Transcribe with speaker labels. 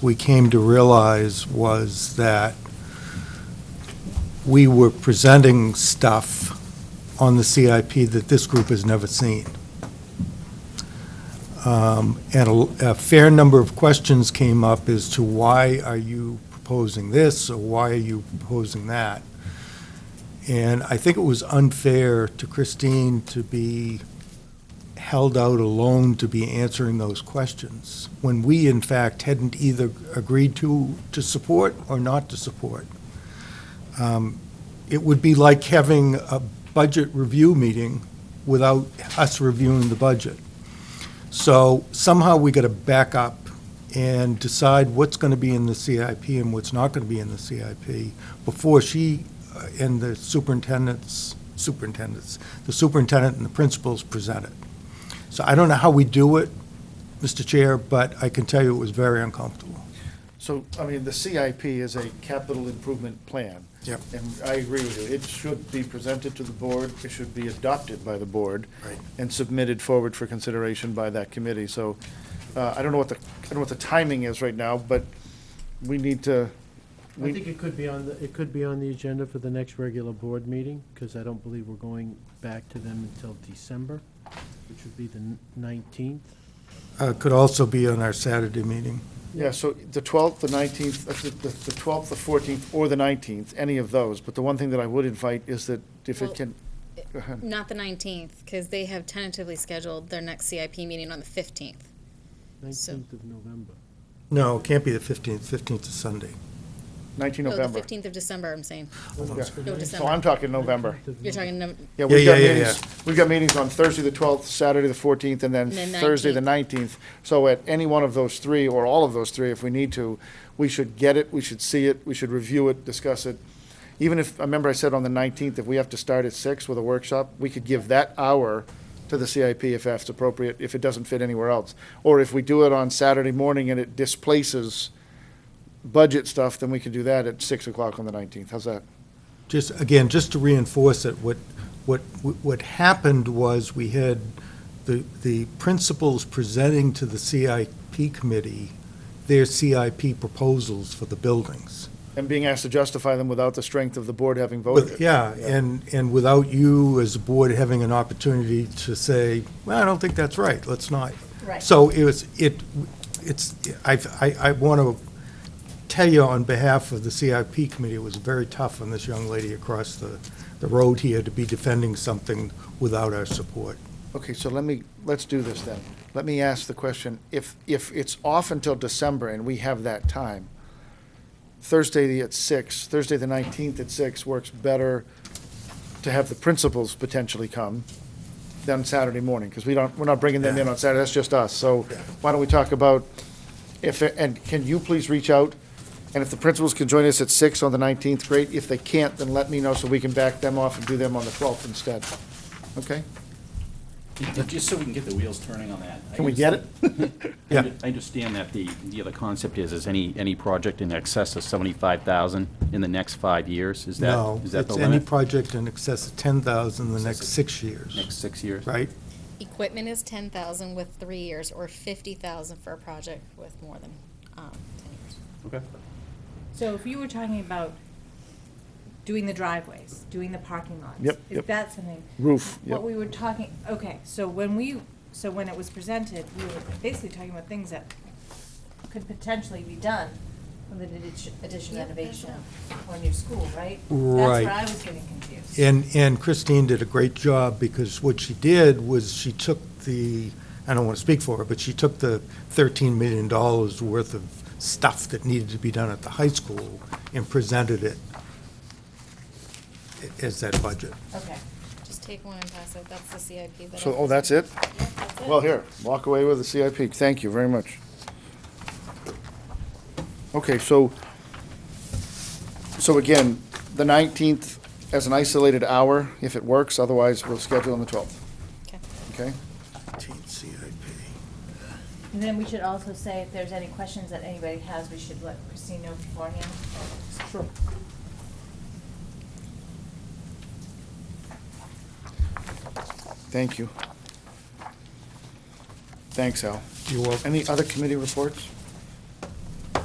Speaker 1: we came to realize was that we were presenting stuff on the CIP that this group has never seen. Um, And a a fair number of questions came up as to why are you proposing this, or why are you proposing that? And I think it was unfair to Christine to be held out alone to be answering those questions, when we, in fact, hadn't either agreed to, to support or not to support. Um, It would be like having a budget review meeting without us reviewing the budget. So somehow we got to back up and decide what's going to be in the CIP and what's not going to be in the CIP before she uh, and the superintendents, superintendents, the superintendent and the principals present it. So I don't know how we do it, Mr. Chair, but I can tell you it was very uncomfortable.
Speaker 2: So, I mean, the CIP is a capital improvement plan.
Speaker 1: Yep.
Speaker 2: And I agree with you. It should be presented to the board, it should be adopted by the board.
Speaker 1: Right.
Speaker 2: And submitted forward for consideration by that committee. So, uh, I don't know what the, I don't know what the timing is right now, but we need to,
Speaker 3: I
Speaker 2: we,
Speaker 3: think it could be on, the it could be on the agenda for the next regular board meeting, because I don't believe we're going back to them until December, which would be the nineteenth.
Speaker 1: Uh, Could also be on our Saturday meeting.
Speaker 2: yeah, so the twelfth, the nineteenth, uh, the twelfth, the fourteenth, or the nineteenth, any of those. But the one thing that I would invite is that if
Speaker 4: Well,
Speaker 2: it can, go ahead.
Speaker 4: Not the 19th, because they have tentatively scheduled their next CIP meeting on the 15th. So-
Speaker 3: Nineteenth of November.
Speaker 1: No, it can't be the 15th, 15th is Sunday.
Speaker 2: nineteen
Speaker 4: Oh, the
Speaker 2: November.
Speaker 4: 15th of December, I'm saying. No,
Speaker 2: Oh, So
Speaker 4: December.
Speaker 2: I'm talking November.
Speaker 3: 19th of
Speaker 4: You're
Speaker 3: November.
Speaker 4: talking, no-
Speaker 2: Yeah,
Speaker 1: Yeah,
Speaker 2: we've got
Speaker 1: yeah, yeah,
Speaker 2: meetings, we've got meetings on Thursday, the 12th, Saturday, the 14th, and then
Speaker 4: And then
Speaker 2: Thursday, the 19th. So at any one of those three, or all of those three, if we need to, we should get it, we should see it, we should review it, discuss it. Even if, I remember I said on the 19th, if we have to start at 6 with a workshop, we could give that hour to the CIP if that's appropriate, if it doesn't fit anywhere else. Or if we do it on Saturday morning and it displaces budget stuff, then we could do that at 6 o'clock on the 19th. How's that?
Speaker 1: Just, again, just to reinforce it, what, what, what happened was we had the, the principals presenting to the CIP committee their CIP proposals for the buildings.
Speaker 2: And being asked to justify them without the strength of the board having voted it.
Speaker 1: With- Yeah, and, and without you as a board having an opportunity to say, well, I don't think that's right, let's not.
Speaker 4: Right.
Speaker 1: So it was, it, it's, I, I, I want to tell you on behalf of the CIP committee, it was very tough on this young lady across the, the road here to be defending something without our support.
Speaker 2: Okay, so let me, let's do this then. Let me ask the question, if, if it's off until December and we have that time, Thursday at six, Thursday the nineteenth at six works better to have the principals potentially come than Saturday morning, because we don't, we're not bringing them in on Saturday, that's just us. So why don't we talk about if, and can you please reach out? And if the principals can join us at six on the nineteenth, great. If they can't, then let me know so we can back them off and do them on the twelfth instead. Okay?
Speaker 5: Just so we can get the wheels turning on that. I
Speaker 2: Can we get it?
Speaker 1: Yeah.
Speaker 5: I understand that the, the other concept is, is any, any project in excess of 75,000 in the next five years? Is that,
Speaker 1: No,
Speaker 5: is that the
Speaker 1: it's any
Speaker 5: limit?
Speaker 1: project in excess of ten thousand the next six
Speaker 5: Next
Speaker 1: years,
Speaker 5: six years?
Speaker 1: right?
Speaker 4: equipment is 10,000 with three years, or 50,000 for a project with more than um, 10 years.
Speaker 5: Okay.
Speaker 6: So if you were talking about doing the driveways, doing the parking lots.
Speaker 2: Yep, yep.
Speaker 6: If that's something.
Speaker 2: Roof, yep.
Speaker 6: What we were talking, okay, so when we, so when it was presented, we were basically talking about things that could potentially be done with an addition- addition
Speaker 4: Yeah, that's
Speaker 6: renovation or new school, right? That's
Speaker 1: Right.
Speaker 6: where I was getting confused.
Speaker 1: And, and Christine did a great job, because what she did was she took the, I don't want to speak for her, but she took the $13 million worth of stuff that needed to be done at the high school and presented it as that budget.
Speaker 6: Okay.
Speaker 4: Just take one and pass it, that's the CIP that.
Speaker 2: So,
Speaker 4: I-
Speaker 2: oh, that's it?
Speaker 4: Yeah, that's it.
Speaker 2: Well, here, walk away with the CIP. Thank you very much. Okay, so, so again, the 19th as an isolated hour, if it works, otherwise we'll schedule on the 12th,
Speaker 4: Okay.
Speaker 2: okay?
Speaker 6: And then we should also say if there's any questions that anybody has, we should let Christine know beforehand.
Speaker 2: Sure. Thank you. Thanks, Al.
Speaker 1: You're welcome.
Speaker 2: Any other committee reports?